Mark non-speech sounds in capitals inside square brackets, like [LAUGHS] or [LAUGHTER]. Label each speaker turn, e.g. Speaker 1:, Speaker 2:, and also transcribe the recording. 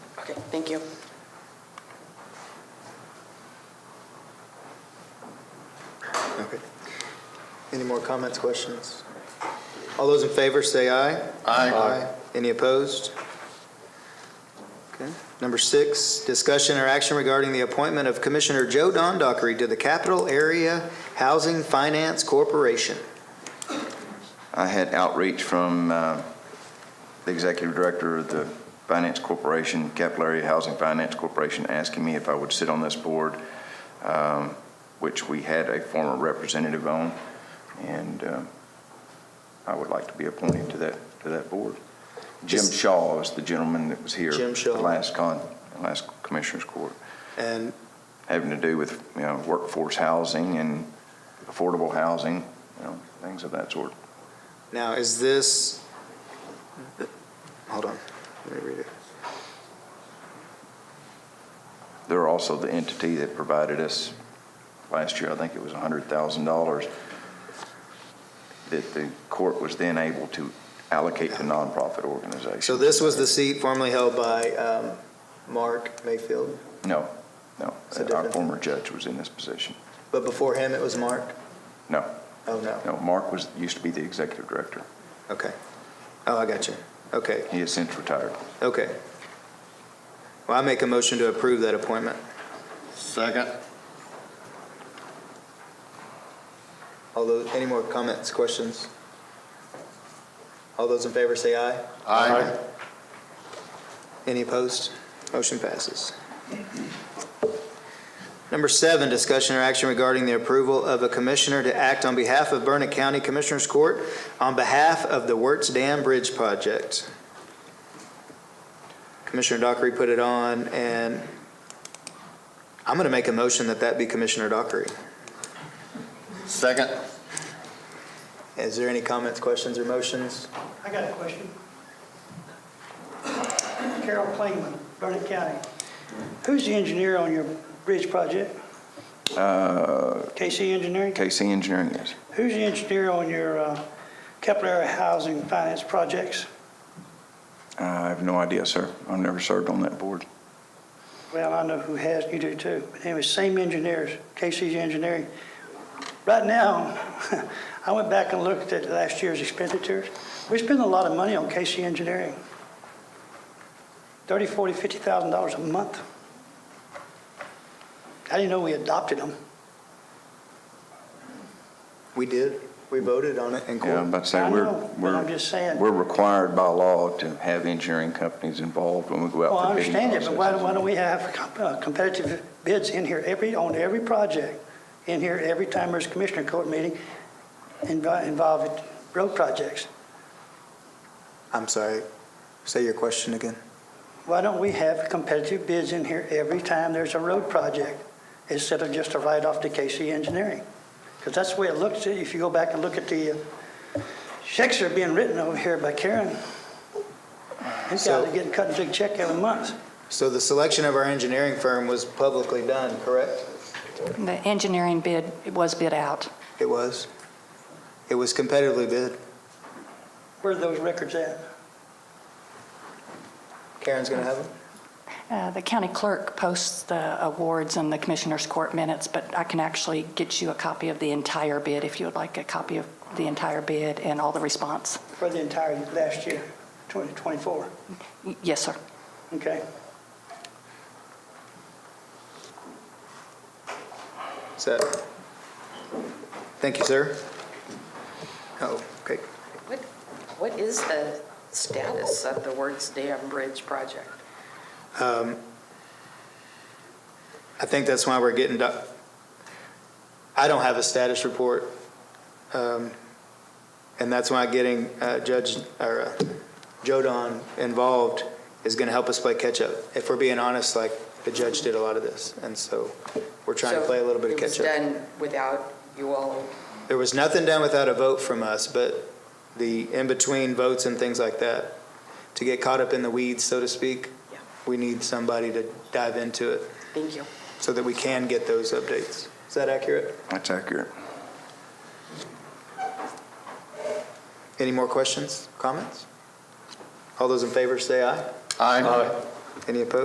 Speaker 1: Thank you.
Speaker 2: Okay. Any more comments, questions? All those in favor, say aye.
Speaker 3: Aye.
Speaker 2: Any opposed? Okay. Number six, discussion or action regarding the appointment of Commissioner Joe Don Dockery to the Capital Area Housing Finance Corporation.
Speaker 3: I had outreach from uh, the executive director of the Finance Corporation, Capital Area Housing Finance Corporation, asking me if I would sit on this board, um, which we had a former representative on, and uh, I would like to be appointed to that, to that board. Jim
Speaker 2: Is-
Speaker 3: Shaw is the gentleman that was here.
Speaker 2: Jim Shaw.
Speaker 3: the Last con, last Commissioners Court,
Speaker 2: And
Speaker 3: having to do with, you know, workforce housing and affordable housing, you know, things of that sort.
Speaker 2: now, is this, hold on, let me read it.
Speaker 3: They're also the entity that provided us, last year, I think it was $100,000, that the court was then able to allocate to nonprofit organizations.
Speaker 2: So this was the seat formerly held by um, Mark Mayfield,
Speaker 3: No, no.
Speaker 2: It's a
Speaker 3: Our
Speaker 2: different-
Speaker 3: former judge was in this position.
Speaker 2: but before him, it was Mark?
Speaker 3: No,
Speaker 2: Oh, no.
Speaker 3: no, Mark was, used to be the executive director.
Speaker 2: Okay. Oh, I got you. Okay,
Speaker 3: He has since retired.
Speaker 2: okay. Well, I make a motion to approve that appointment.
Speaker 4: Second.
Speaker 2: All those, any more comments, questions? All those in favor say aye.
Speaker 4: Aye.
Speaker 2: Any opposed? Motion passes. Number seven, discussion or action regarding the approval of a commissioner to act on behalf of Burnett County Commissioners Court on behalf of the Wertz Dam Bridge Project. Commissioner Dockery put it on, and I'm going to make a motion that that be Commissioner Dockery.
Speaker 4: Second.
Speaker 2: Is there any comments, questions, or motions?
Speaker 5: I got a question. Carol Klingman, Burnett County. Who's the engineer on your bridge project?
Speaker 3: Uh,
Speaker 5: KC Engineering?
Speaker 3: KC Engineering is.
Speaker 5: Who's the engineer on your uh, capital area housing finance projects?
Speaker 3: I have no idea, sir. I've never served on that board.
Speaker 5: Well, I know who has, you do too. But Anyway, same engineers, KC Engineering. Right now, [LAUGHS] I went back and looked at last year's expenditures. We spend a lot of money on KC Engineering. Thirty, forty, fifty thousand dollars a month. I didn't know we adopted them.
Speaker 2: We did. We voted on it in
Speaker 3: Yeah,
Speaker 2: court.
Speaker 3: I'm about to say,
Speaker 5: I
Speaker 3: we're,
Speaker 5: know, but
Speaker 3: we're.
Speaker 5: I'm just saying-
Speaker 3: We're required by law to have engineering companies involved when we go
Speaker 5: Well, Oh, I
Speaker 3: out for bidding
Speaker 5: understand it, but why, why
Speaker 3: processes.
Speaker 5: don't we have com- uh, competitive bids in here every, on every project? In here every time there's a commissioner court meeting invi- involving road projects?
Speaker 2: I'm sorry. Say your question again.
Speaker 5: Why don't we have competitive bids in here every time there's a road project instead of just a write-off to KC Engineering? Because that's the way it looks, if you go back and look at the uh, checks that are being written over here by Karen. These guys
Speaker 2: So-
Speaker 5: are getting cut a big check every month.
Speaker 2: So the selection of our engineering firm was publicly done, correct?
Speaker 6: The engineering bid it was bid out.
Speaker 2: It was. It was competitively bid.
Speaker 5: Where are those records at?
Speaker 2: Karen's going to have them.
Speaker 6: Uh, The county clerk posts the awards and the commissioners' court minutes, but I can actually get you a copy of the entire bid if you would like a copy of the entire bid and all the response.
Speaker 5: For the entire last year, 2024,
Speaker 6: Y- Yes, sir.
Speaker 5: okay?
Speaker 2: So, thank you, sir. Oh, okay.
Speaker 1: What, what is the status of the Words Dam Bridge project?
Speaker 2: I think that's why we're getting, doc- I don't have a status report. um, And that's why getting uh, Judge, or uh, Jodan involved is going to help us play catch-up. If we're being honest, like, the judge did a lot of this, and so we're trying to play a little bit of
Speaker 1: So
Speaker 2: catch-up.
Speaker 1: it was done without you all,
Speaker 2: There was nothing done without a vote from us, but the in-between votes and things like that, to get caught up in the weeds, so to speak,
Speaker 1: Yeah.
Speaker 2: we need somebody to dive into it
Speaker 1: thank you.
Speaker 2: so that we can get those updates. Is that accurate?
Speaker 3: That's accurate.
Speaker 2: Any more questions, comments? All those in favor say aye.
Speaker 4: Aye.
Speaker 2: Any opposed?